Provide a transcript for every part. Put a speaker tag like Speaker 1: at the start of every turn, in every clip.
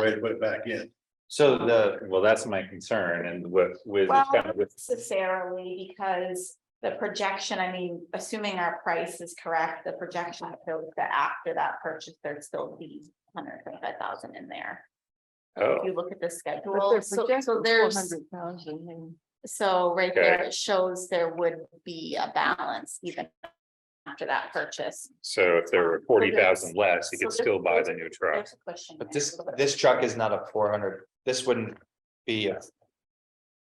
Speaker 1: way to put it back in.
Speaker 2: So the, well, that's my concern and with, with,
Speaker 3: Well,
Speaker 2: kind
Speaker 3: not
Speaker 2: of with,
Speaker 3: necessarily because the projection, I mean, assuming our price is correct, the projection shows that after that purchase, there'd still be hundred twenty-five thousand in there.
Speaker 2: oh,
Speaker 3: If you look at the
Speaker 4: But
Speaker 3: schedule,
Speaker 4: they're
Speaker 3: so,
Speaker 4: projected
Speaker 3: so
Speaker 4: for
Speaker 3: there's,
Speaker 4: 400,000 and-
Speaker 3: so right there,
Speaker 2: Okay.
Speaker 3: it shows there would be a balance even after that purchase.
Speaker 2: so if there were
Speaker 3: So
Speaker 2: forty
Speaker 3: there's-
Speaker 2: thousand less, you
Speaker 3: so
Speaker 2: could
Speaker 3: there's-
Speaker 2: still buy the new truck.
Speaker 3: There's a question.
Speaker 5: But
Speaker 3: there, a
Speaker 5: this,
Speaker 3: little bit.
Speaker 5: this truck is not a four hundred, this wouldn't be a.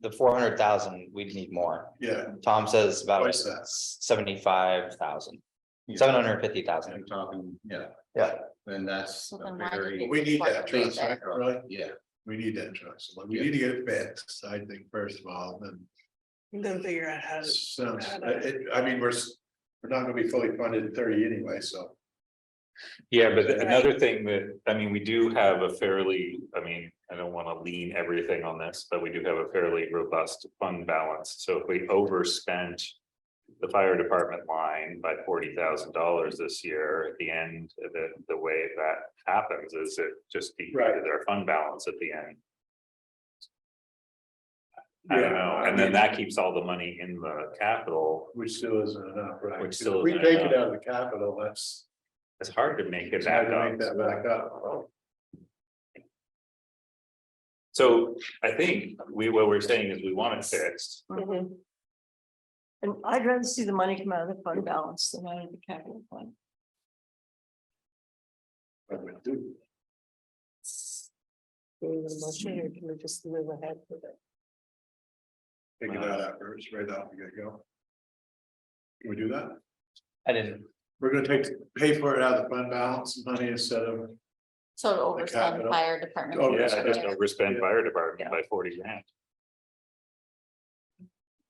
Speaker 5: The four hundred thousand, we'd need more.
Speaker 1: Yeah,
Speaker 5: Tom says about
Speaker 1: Twice that.
Speaker 5: seventy-five thousand,
Speaker 6: Yeah.
Speaker 5: seven hundred fifty thousand.
Speaker 6: You're talking, yeah,
Speaker 5: Yeah.
Speaker 6: then that's
Speaker 3: So
Speaker 6: a
Speaker 3: then why did
Speaker 6: very.
Speaker 3: they-
Speaker 1: we need that truck,
Speaker 6: basic
Speaker 1: right?
Speaker 6: truck.
Speaker 1: Right?
Speaker 6: Yeah,
Speaker 1: We need that truck. So like, we need to get it fixed, I think, first of all, then.
Speaker 7: Then figure out how to.
Speaker 1: So, it, I mean, we're, s- we're not gonna be fully funded in thirty anyway, so.
Speaker 2: Yeah, but
Speaker 7: Right.
Speaker 2: another thing that, I mean, we do have a fairly, I mean, I don't wanna lean everything on this, but we do have a fairly robust fund balance. So if we overspent. The fire department line by forty thousand dollars this year, at the end, the, the way that happens is it just depleted our fund balance at the end. I don't know, and then that keeps all the money in the capital.
Speaker 1: Which still isn't enough, right?
Speaker 2: Which still
Speaker 1: If We
Speaker 2: isn't
Speaker 1: take
Speaker 2: enough.
Speaker 1: it out of the capital, that's.
Speaker 2: It's hard to make it
Speaker 1: it's hard
Speaker 2: back
Speaker 1: to Make
Speaker 2: up.
Speaker 1: that back up.
Speaker 2: So I think we, what we're saying is we want it fixed.
Speaker 4: Mhm. And I'd rather see the money come out of the fund balance than out of the capital fund.
Speaker 1: But we do-
Speaker 4: Do we want a motion or can we just move ahead with it?
Speaker 1: Figure that out first, right off, we gotta go. Can we do that?
Speaker 5: I didn't,
Speaker 1: We're gonna take, pay for it out of the fund balance money instead of,
Speaker 3: So to
Speaker 1: The
Speaker 3: overspend
Speaker 1: capital.
Speaker 3: fire department.
Speaker 1: Oh,
Speaker 2: Yeah,
Speaker 1: yes,
Speaker 2: I just
Speaker 1: yes.
Speaker 2: overspend fire department by forty grand.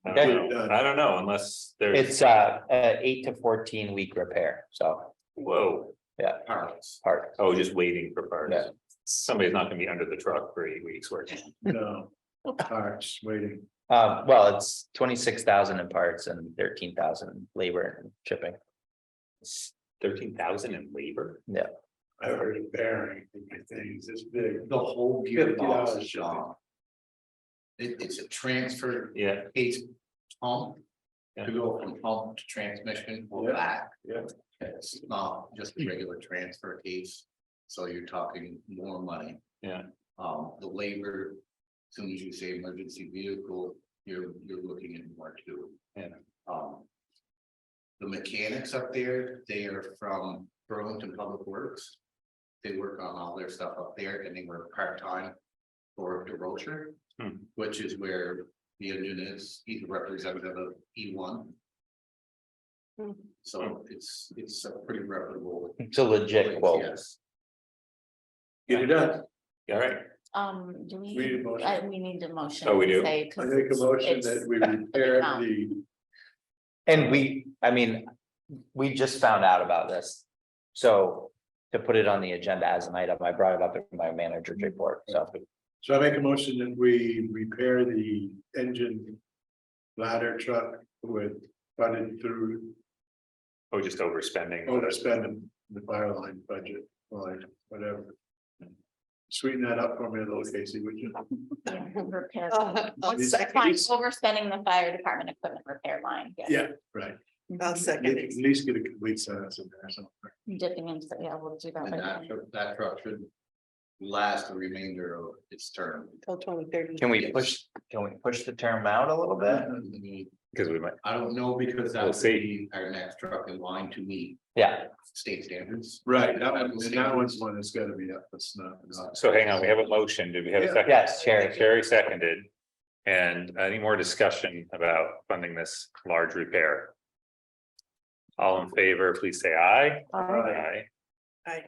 Speaker 2: I don't know. I don't know unless there's,
Speaker 5: it's uh, a eight to fourteen week repair, so
Speaker 2: whoa,
Speaker 6: parts.
Speaker 5: hard.
Speaker 2: oh, just waiting for
Speaker 5: Yeah.
Speaker 2: parts. Somebody's not gonna be under the truck for eight weeks working.
Speaker 1: no, parts, waiting.
Speaker 5: Um, well, it's twenty-six thousand in parts and thirteen thousand labor and shipping.
Speaker 2: Thirteen thousand in labor?
Speaker 1: I heard a bearing, I think, it's this big.
Speaker 6: The whole
Speaker 1: $50
Speaker 6: gearbox is gone. It, it's a transfer
Speaker 2: Yeah,
Speaker 6: case pump.
Speaker 2: Yeah.
Speaker 6: To go from pump to transmission or
Speaker 1: Yeah,
Speaker 6: back.
Speaker 1: yeah.
Speaker 6: It's not just a regular transfer case, so you're talking more money.
Speaker 2: Yeah.
Speaker 6: Um, the labor, as soon as you say emergency vehicle, you're, you're looking at more too.
Speaker 2: Yeah.
Speaker 6: Um. The mechanics up there, they are from Burlington Public Works. They work on all their stuff up there and they work part-time for DeRocher.
Speaker 2: Hmm.
Speaker 6: Which is where the union is, he's a representative of E one.
Speaker 4: Hmm.
Speaker 6: So it's, it's a pretty reputable.
Speaker 5: It's a legit quote.
Speaker 6: Yes.
Speaker 1: Get it done.
Speaker 2: all right.
Speaker 3: Um, do we?
Speaker 1: We need a motion.
Speaker 3: I- we need a motion.
Speaker 2: Oh, we
Speaker 3: to
Speaker 2: do?
Speaker 3: say, 'cause
Speaker 1: I make a
Speaker 3: it's-
Speaker 1: motion
Speaker 3: it's-
Speaker 1: that we repair the,
Speaker 5: And we, I mean, we just found out about this. So to put it on the agenda as an item, I brought it up in my manager's report, so.
Speaker 1: so I make a motion that we repair the engine. Ladder truck with funded through
Speaker 2: Oh, just overspending.
Speaker 1: overspending the fire line budget, or whatever. Sweeten that up for me a little, Casey, would you?
Speaker 3: yeah, repair-
Speaker 4: Oh,
Speaker 7: Uh,
Speaker 3: What's
Speaker 1: It's-
Speaker 3: the- fine,
Speaker 1: it's-
Speaker 3: Overspending the fire department equipment repair line. yeah.
Speaker 1: Yeah, right.
Speaker 7: I'll
Speaker 1: At
Speaker 7: second it.
Speaker 1: least get a complete sentence in there, so.
Speaker 3: Dipping into, yeah, we'll do that.
Speaker 6: And
Speaker 3: right
Speaker 6: that,
Speaker 3: now.
Speaker 6: tru- that truck should last the remainder of its term.
Speaker 7: Till twenty thirty.
Speaker 5: Can we push, can we push the term out a little bit?
Speaker 2: Because we might,
Speaker 6: I don't know, because that
Speaker 2: We'll
Speaker 6: would
Speaker 2: see.
Speaker 6: be our next truck in line to meet
Speaker 5: Yeah,
Speaker 6: state standards.
Speaker 1: Right, that one, that one's one that's gotta be up, that's not. not-
Speaker 2: so hang on, we have a motion. Do we have a
Speaker 1: Yeah.
Speaker 2: second?
Speaker 5: yes, Sherry.
Speaker 2: Carrie seconded. And any more discussion about funding this large repair? All in favor, please say aye. Aye.
Speaker 7: Aye.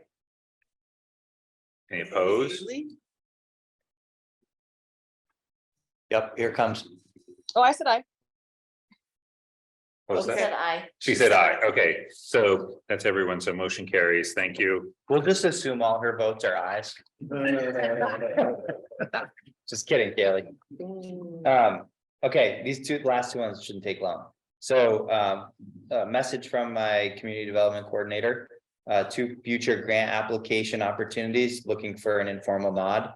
Speaker 2: Any opposed?
Speaker 5: Yep, here comes.
Speaker 4: Oh, I said I.
Speaker 2: What was that?
Speaker 3: Said I.
Speaker 2: She said aye. Okay, so that's everyone. So motion carries. Thank you.
Speaker 5: We'll just assume all her votes are ayes. Just kidding, Kaylee. Um, okay, these two, last two ones shouldn't take long. So, um, a message from my community development coordinator. Uh, two future grant application opportunities, looking for an informal nod.